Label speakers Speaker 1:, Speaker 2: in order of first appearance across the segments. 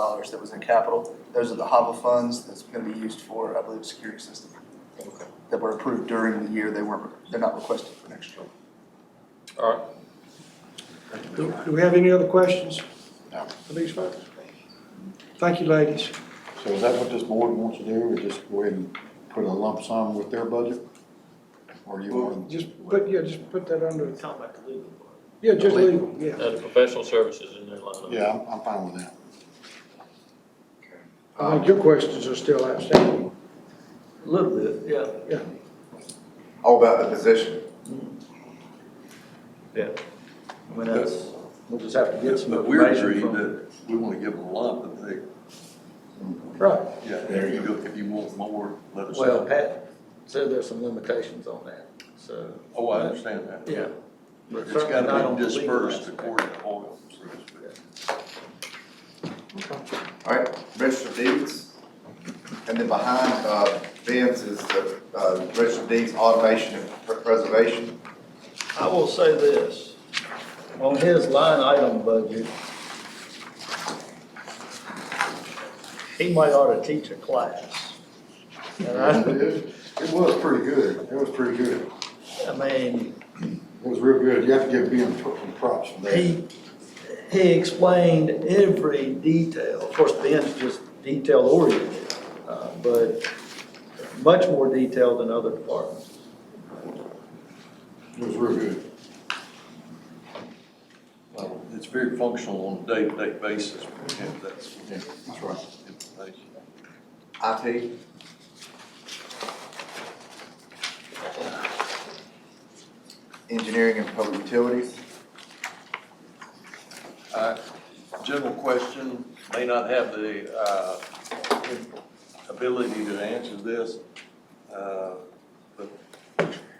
Speaker 1: dollars that was in capital. Those are the HAVA funds that's gonna be used for, I believe, security system.
Speaker 2: Okay.
Speaker 1: That were approved during the year, they weren't, they're not requested for next year.
Speaker 2: All right.
Speaker 3: Do do we have any other questions
Speaker 4: No.
Speaker 3: for these folks? Thank you, ladies.
Speaker 4: So is that what this board wants to do, or just go ahead and put a lump sum with their budget? Or you want,
Speaker 3: Just put, yeah, just put that under,
Speaker 5: Talking about the legal part. Uh,
Speaker 3: yeah, just legal, yeah.
Speaker 6: Add professional services in their line item.
Speaker 4: yeah, I'm, I'm fine with that.
Speaker 3: I think your questions are still outstanding.
Speaker 5: A little bit, yeah.
Speaker 3: Yeah.
Speaker 7: All about the position.
Speaker 5: Yeah. I mean, that's,
Speaker 8: We'll just have to get some
Speaker 9: But we're
Speaker 8: information
Speaker 9: agreed
Speaker 8: from.
Speaker 9: that we want to give them a lump, and they,
Speaker 3: Right.
Speaker 9: yeah, if you go, if you want more, let us
Speaker 8: Well,
Speaker 9: know.
Speaker 8: Pat said there's some limitations on that, so.
Speaker 9: Oh, I understand that.
Speaker 8: Yeah.
Speaker 9: But it's
Speaker 8: Certainly not
Speaker 9: gotta
Speaker 8: on
Speaker 9: be
Speaker 8: the legal
Speaker 9: dispersed
Speaker 8: aspect.
Speaker 9: according to oil, so to speak.
Speaker 7: All right, register of deeds. And then behind, uh, Ben's is the, uh, register of deeds automation and pre- preservation.
Speaker 8: I will say this, on his line item budget, he might ought to teach a class. And I,
Speaker 4: It it was pretty good, it was pretty good, it
Speaker 8: I mean,
Speaker 4: was real good, you have to give Ben some props for that.
Speaker 8: he, he explained every detail. Of course, Ben's just detail oriented, uh, but much more detailed than other departments.
Speaker 4: It was real good.
Speaker 9: Well, It's very functional on a day-to-day basis, we have that sort
Speaker 4: Yeah, that's right.
Speaker 9: of information.
Speaker 7: IT, engineering and public utilities.
Speaker 9: Uh, General question, may not have the uh, ability to answer this, uh, but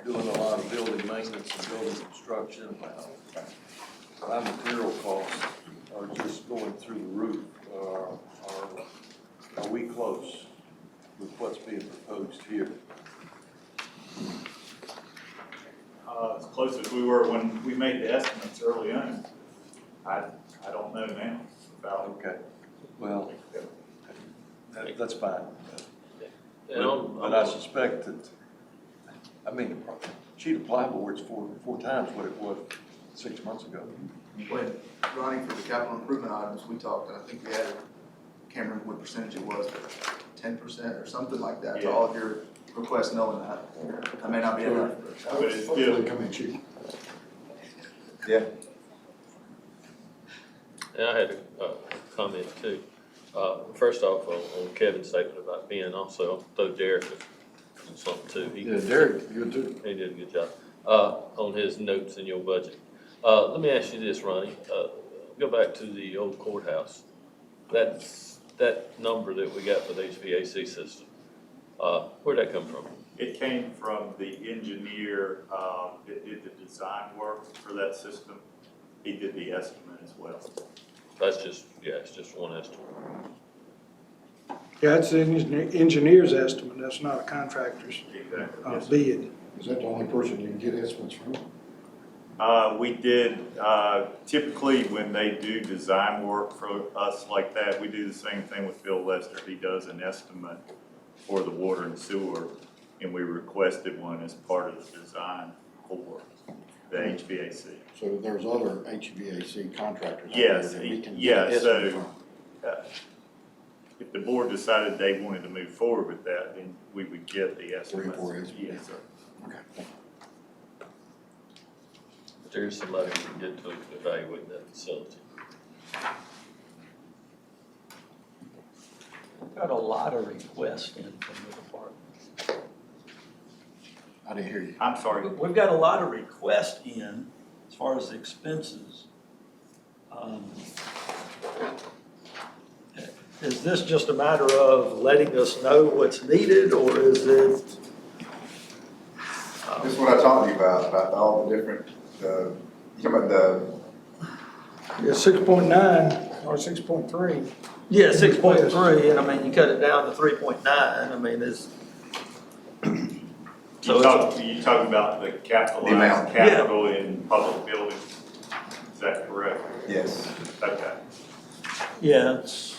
Speaker 9: doing a lot of building maintenance and building construction, uh, my material costs are just going through the roof. Uh, Are are we close with what's being proposed here?
Speaker 10: uh, as close as we were when we made the estimates early on. I, I don't know now about.
Speaker 9: Okay, well, that- that's fine.
Speaker 6: And
Speaker 9: But
Speaker 6: I'm-
Speaker 9: but I suspect that, I mean, sheet of plywood's four, four times what it was six months ago.
Speaker 1: When running for the capital improvement items, we talked, and I think we added, can't remember what percentage it was, ten percent or something like that, to all of your requests knowing that. I may not be enough.
Speaker 10: But it's
Speaker 4: Hopefully
Speaker 10: still,
Speaker 4: they come in cheap.
Speaker 7: Yeah.
Speaker 6: And I had a, a comment too. Uh, first off, on on Kevin's statement about Ben, also I'll throw Derek in something too. He-
Speaker 4: Yeah, Derek, good too.
Speaker 6: He did a good job, uh, on his notes in your budget. Uh, let me ask you this, Ronnie, uh, go back to the old courthouse. That's, that number that we got for the HVAC system, uh, where'd that come from?
Speaker 10: it came from the engineer, um, that did the design work for that system. He did the estimate as well.
Speaker 6: That's just, yeah, it's just one estimate.
Speaker 3: Yeah, that's the engineer- engineer's estimate, that's not a contractor's
Speaker 10: Exactly.
Speaker 3: uh,
Speaker 10: yes.
Speaker 3: bid.
Speaker 4: Is that the only person you can get estimates from?
Speaker 10: Uh, we did, uh, typically when they do design work for us like that, we do the same thing with Bill Lester. He does an estimate for the water and sewer, and we requested one as part of the design for the HVAC.
Speaker 4: So there's other HVAC contractors out there
Speaker 10: Yes,
Speaker 4: that we can
Speaker 10: yeah,
Speaker 4: get estimates
Speaker 10: so- uh,
Speaker 4: from.
Speaker 10: If the board decided they wanted to move forward with that, then we would get the
Speaker 4: Three or
Speaker 10: estimates.
Speaker 4: four estimates.
Speaker 10: Yes, sir.
Speaker 4: Okay.
Speaker 6: But There's somebody who can get to evaluate that facility.
Speaker 5: Got a lot of requests in from the department.
Speaker 4: I didn't hear you.
Speaker 10: I'm sorry,
Speaker 5: We- We've got a lot of requests in as far as expenses. Um,
Speaker 8: Is this just a matter of letting us know what's needed, or is it?
Speaker 7: This is what I talked to you about, about all the different, uh, you talking about the,
Speaker 3: Yeah, six point nine or six point three.
Speaker 8: Yeah, six point three, and I mean, you cut it down to three point nine, I mean, it's. So
Speaker 10: you
Speaker 8: it's-
Speaker 10: talk, you talking about the
Speaker 7: The amount.
Speaker 10: capitalized
Speaker 8: Yeah.
Speaker 10: capital in public buildings? Is that correct?
Speaker 7: yes.
Speaker 10: Okay.
Speaker 8: Yeah, it's.